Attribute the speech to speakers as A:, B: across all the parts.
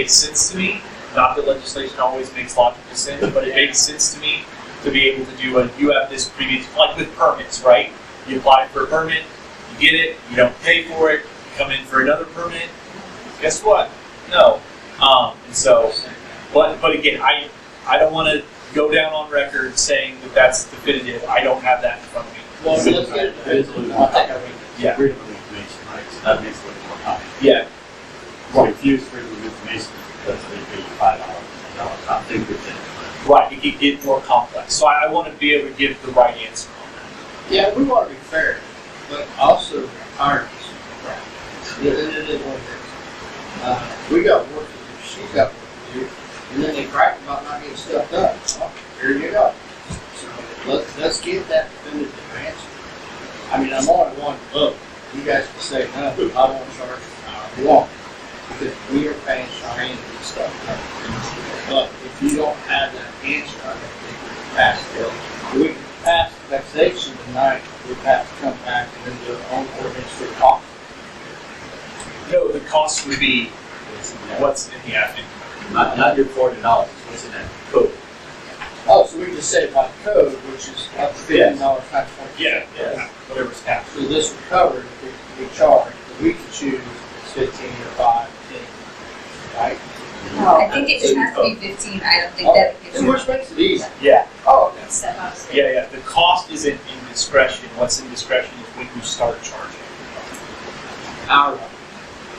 A: made sense to me. Not that legislation always makes logical sense, but it made sense to me to be able to do a, you have this previous, like with permits, right? You apply for a permit, you get it, you don't pay for it, you come in for another permit, guess what? No. Um, and so, but, but again, I, I don't want to go down on record saying that that's definitive. I don't have that in front of me.
B: Well, let's get it.
A: Yeah.
C: Freedom of information, right, so that makes it more common.
A: Yeah,
C: So if you use freedom of information, that's what you pay five dollars, a dollar, I think we can.
A: right. It could get more complex. So I, I want to be able to give the right answer on
B: Yeah, we want to be fair, but also ironies. It it is what it is. Uh, We got work to do, she got work to do, and then they crack about not getting stuff done. Well, Here you go. So let's, let's get that definitive answer. I mean, I'm on one vote. You guys can say, no, I don't charge you want. Because we are paying Cheyenne to get stuff done. But if you don't have that answer, I don't think we can pass the bill. We can pass the taxation tonight, we have to come back and then do our own ordinance for cost.
A: that. No, the cost would be what's in the admin.
C: Not, not your forty dollars, what's in that code?
B: Oh, so we can just say by code, which is up to fifteen dollars times point.
A: Yeah, yeah, whatever's happening.
B: So this would cover, we, we charge, but we can choose it's fifteen or five, ten, right? Oh,
D: No, I think it has to be fifteen, I don't think that it
B: And which makes it easy.
A: Yeah,
B: Oh,
D: can step up.
A: yeah, yeah. The cost isn't in discretion. What's in discretion is when you start charging.
B: hour,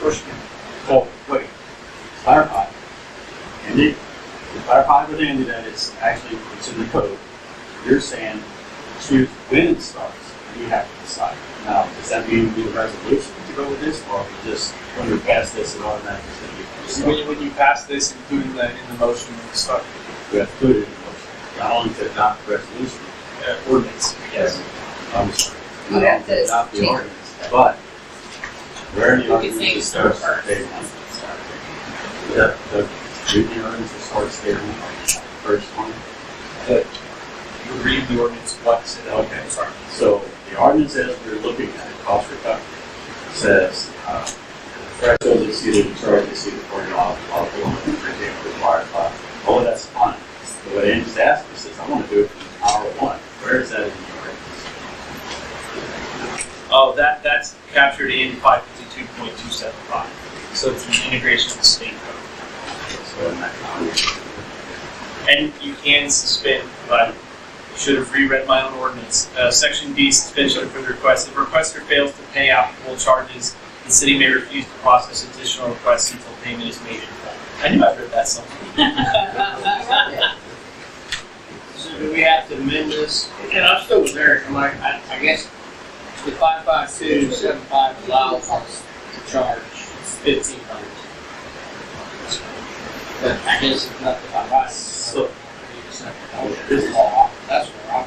B: first,
C: Oh, wait, clarify. Andy, to clarify with Andy that it's actually, it's in the code. You're saying choose when it starts, and you have to decide. Now, does that mean we need a resolution to go with this, or we just, when we pass this, it automatically is
A: So
C: gonna be?
A: when, when you pass this, including the in the motion, when you start
C: We have to put it in the motion, not only to adopt the resolution,
A: uh, ordinance. Yes.
C: I'm sorry.
D: You have to
C: Adopt the
D: change.
C: ordinance, but where in the
E: You could
C: ordinance
E: say
C: it starts?
E: start.
C: day one? The, the, the ordinance starts day one, first one.
A: You read the ordinance once. and-
C: Okay.
A: Sorry.
C: So the ordinance as we're looking at, it, cost recovery, says, uh, threshold exceeded, the charge exceeded forty dollars, all the limit per day required by, oh, that's fine. But what Andy's asking says, I want to do it from hour one, where is that in the ordinance?
A: Oh, that, that's captured in five fifty-two point two seven five. So it's an integration of the state code.
C: So in that
A: And you can suspend, but I should have reread my own ordinance. Uh, section D, suspension of the request. If requester fails to pay applicable charges, the city may refuse to process additional requests until payment is made in full. I knew I read that somewhere.
B: So do we have to amend this? And I'm still with Eric, I'm like, I, I guess the five five two seven five allows us to charge fifteen dollars. But I guess it's not the five five.
C: So-
B: This is all, that's where I'm.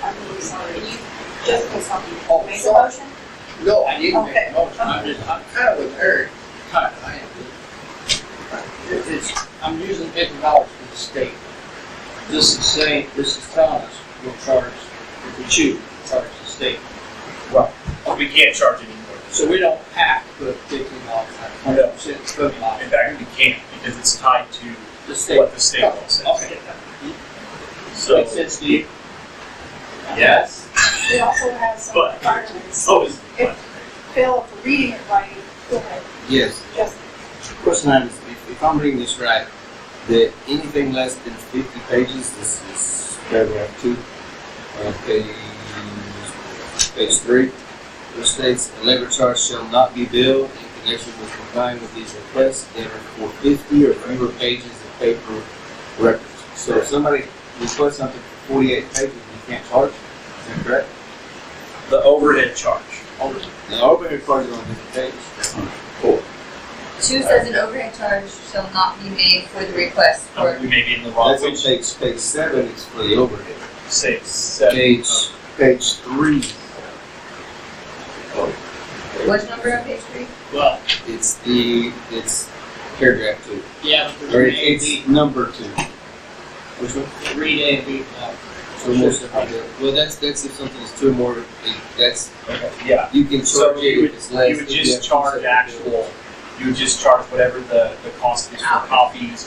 F: I'm really sorry, you, Jessica, something,
B: Oh,
F: made the
B: sorry.
F: motion?
B: No, I didn't make
F: Okay.
B: a motion, I'm just, I'm kind of with Eric, kind of, I am. It- It's, I'm using fifty dollars for the state. This is saying, this is telling us we'll charge, if we choose, we'll charge the state.
A: We can't charge anymore.
B: So we don't have to put fifteen dollars on
A: No.
B: it, it's fifty dollars,
A: In fact, we can't because it's tied to
B: the state.
A: what the state law says.
B: Okay.
C: So,
B: Makes sense to you?
C: yes,
F: We also have some
A: But-
F: requirements.
A: So is,
F: Phil, if you're reading it right, go ahead,
G: Yes,
F: Jessica.
G: question I understand, if, if I'm reading this right, that anything less than fifty pages, this is paragraph two, uh, page, page three, which states, a labor charge shall not be billed in connection with complying with these requests that are for fifty or fewer pages of paper records. So if somebody requests something for forty-eight pages, you can't charge, it. is that correct?
A: the overhead charge.
G: The overhead charge is on fifty pages. Cool.
D: Two says an overhead charge shall not be made for the request for,
A: We may be in the wrong
G: That's on
A: which
G: page, page seven, it's for the overhead.
A: six, seven.
G: Page, page three,
D: what number on page three?
B: Well,
G: it's the, it's paragraph two,
B: yeah, but
G: or
B: read A and B,
G: it's number two. Which one?
B: read A and B, uh,
G: So most of the, well, that's, that's if something is two or more, it- that's,
A: Okay, Yeah.
G: you can
A: So
G: charge
A: you
G: it
A: would,
G: if it's less.
A: you would
G: if
A: just
G: have
A: charge
G: two separate
A: actual you would just charge whatever the, the cost is for copies or